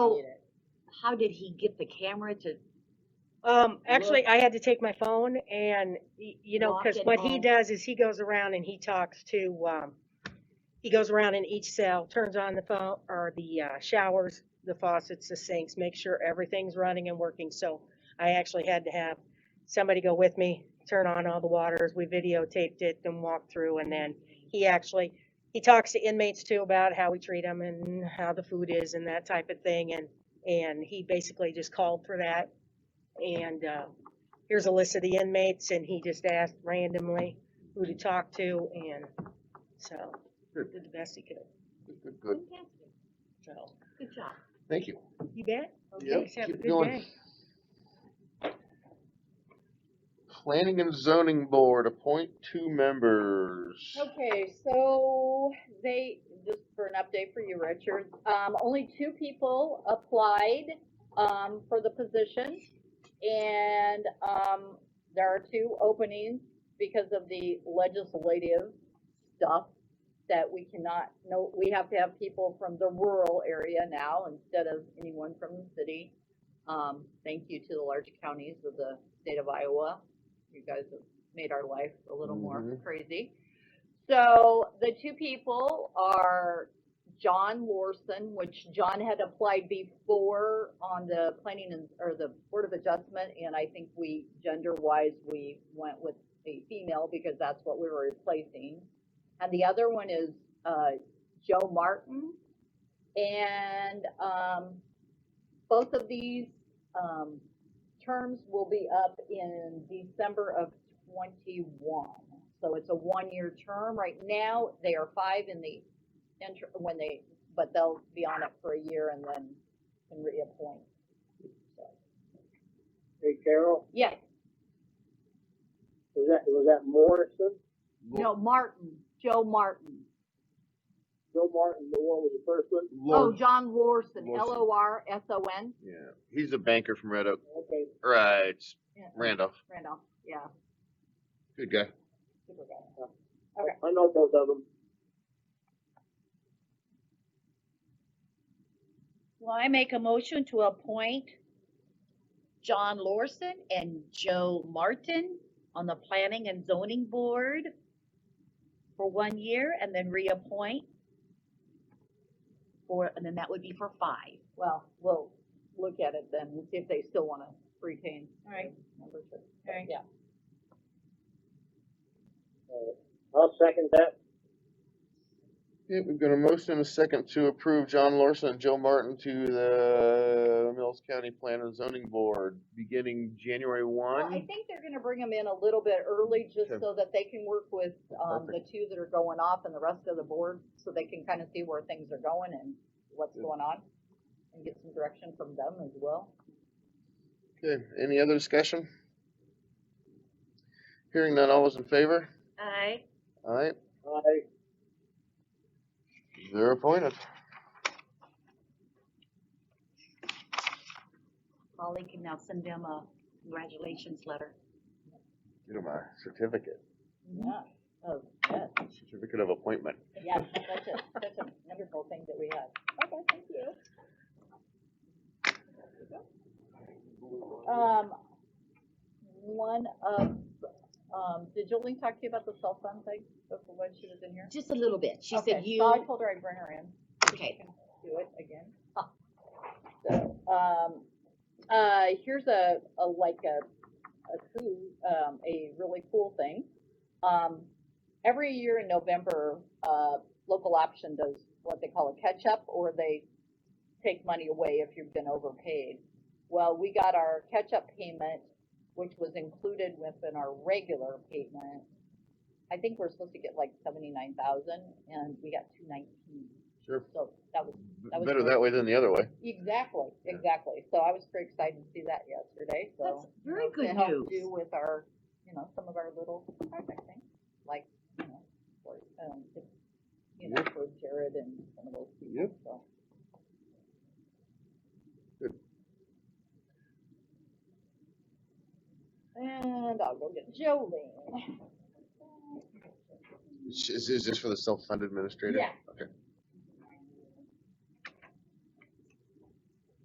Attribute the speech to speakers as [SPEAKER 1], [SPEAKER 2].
[SPEAKER 1] So, how did he get the camera to,
[SPEAKER 2] Um, actually, I had to take my phone and, y- you know,
[SPEAKER 1] Walk
[SPEAKER 2] cause
[SPEAKER 1] it
[SPEAKER 2] what he
[SPEAKER 1] home.
[SPEAKER 2] does is he goes around and he talks to, um, he goes around in each cell, turns on the phone, or the, uh, showers, the faucets, the sinks, make sure everything's running and working, so I actually had to have somebody go with me, turn on all the waters, we videotaped it and walked through, and then he actually, he talks to inmates too about how we treat them and how the food is and that type of thing, and, and he basically just called for that and uh, here's a list of the inmates, and he just asked randomly who to talk to, and so,
[SPEAKER 3] Good.
[SPEAKER 2] did the best he could,
[SPEAKER 3] Good, Good, good,
[SPEAKER 1] fantastic,
[SPEAKER 2] so,
[SPEAKER 1] good job.
[SPEAKER 3] thank you.
[SPEAKER 2] you bet.
[SPEAKER 3] Yep,
[SPEAKER 2] Thanks, have a
[SPEAKER 3] keep
[SPEAKER 2] good
[SPEAKER 3] going.
[SPEAKER 2] day.
[SPEAKER 3] Planning and zoning board, appoint two members.
[SPEAKER 4] Okay, so they, just for an update for you, Richard, um, only two people applied, um, for the position. And, um, there are two openings because of the legislative stuff that we cannot, no, we have to have people from the rural area now instead of anyone from the city. Um, thank you to the large counties of the state of Iowa. You guys have made our life a little more
[SPEAKER 3] Mhm.
[SPEAKER 4] crazy. So the two people are John Lorson, which John had applied before on the planning and, or the Board of Adjustment, and I think we, gender-wise, we went with a female because that's what we were replacing. And the other one is, uh, Joe Martin. And, um, both of these, um, terms will be up in December of twenty-one. So it's a one-year term. Right now, they are five in the inter, when they, but they'll be on it for a year and then can reappoint.
[SPEAKER 5] Hey Carol,
[SPEAKER 4] Yes,
[SPEAKER 5] was that, was that Morrison?
[SPEAKER 4] no, Martin, Joe Martin.
[SPEAKER 5] Joe Martin, the one was the first one?
[SPEAKER 4] Oh,
[SPEAKER 3] Lord,
[SPEAKER 4] John Lorson,
[SPEAKER 3] Lorson.
[SPEAKER 4] L O R S O N,
[SPEAKER 3] yeah, he's a banker from Red Oak,
[SPEAKER 5] Okay,
[SPEAKER 3] right,
[SPEAKER 4] Yeah.
[SPEAKER 3] Randolph,
[SPEAKER 4] Randolph, yeah,
[SPEAKER 3] good guy.
[SPEAKER 4] super guy. Okay.
[SPEAKER 5] I know both of them.
[SPEAKER 6] Well, I make a motion to appoint John Lorson and Joe Martin on the Planning and Zoning Board for one year and then reappoint for, and then that would be for five.
[SPEAKER 4] Well, we'll look at it then, and see if they still wanna retain.
[SPEAKER 6] All right.
[SPEAKER 4] their Membership.
[SPEAKER 6] All right.
[SPEAKER 4] Yeah.
[SPEAKER 5] I'll second that.
[SPEAKER 3] Yeah, we've got a motion and a second to approve John Larson and Joe Martin to the Mills County Plan and Zoning Board, beginning January
[SPEAKER 4] Well, I
[SPEAKER 3] one.
[SPEAKER 4] think they're gonna bring them in a little bit early, just
[SPEAKER 3] Okay.
[SPEAKER 4] so that they can work with, um, the two that are going off and the rest of the board, so they can kinda see where things are going and what's
[SPEAKER 3] Good.
[SPEAKER 4] going on. And get some direction from them as well.
[SPEAKER 3] Okay, any other discussion? Hearing none, all those in favor?
[SPEAKER 6] Aye.
[SPEAKER 3] Alright,
[SPEAKER 5] I,
[SPEAKER 3] they're appointed.
[SPEAKER 6] Molly can now send them a congratulations letter.
[SPEAKER 3] Get them a certificate,
[SPEAKER 4] Yeah, oh, yes,
[SPEAKER 3] certificate of appointment.
[SPEAKER 4] yes, such a, such a wonderful thing that we had. Okay, thank you. Um, one of, um, did Jolene talk to you about the cell phone thing, before when she was in here?
[SPEAKER 6] Just a little bit. She
[SPEAKER 4] Okay,
[SPEAKER 6] said
[SPEAKER 4] so I
[SPEAKER 6] you,
[SPEAKER 4] told her I'd bring her in.
[SPEAKER 6] okay.
[SPEAKER 4] do it again. So, um, uh, here's a, a, like a, a cool, um, a really cool thing. Um, every year in November, uh, local option does what they call a catch-up, or they take money away if you've been overpaid. Well, we got our catch-up payment, which was included within our regular payment. I think we're supposed to get like seventy-nine thousand, and we got two nineteen,
[SPEAKER 3] Sure,
[SPEAKER 4] so that was That was
[SPEAKER 3] better
[SPEAKER 4] great.
[SPEAKER 3] that way than the other way.
[SPEAKER 4] Exactly,
[SPEAKER 3] Yeah.
[SPEAKER 4] exactly. So I was pretty excited to see that yesterday, so.
[SPEAKER 6] That's
[SPEAKER 4] you
[SPEAKER 6] very
[SPEAKER 4] know, to
[SPEAKER 6] good
[SPEAKER 4] help
[SPEAKER 6] news.
[SPEAKER 4] Do with our, you know, some of our little project things, like, you know, for, um, just, you know, for Jared and some of those people,
[SPEAKER 3] Yep.
[SPEAKER 4] so.
[SPEAKER 3] Good.
[SPEAKER 4] And I'll go get Jolene.
[SPEAKER 3] Is, is this for the self-fund administrator?
[SPEAKER 4] Yeah.
[SPEAKER 3] Okay.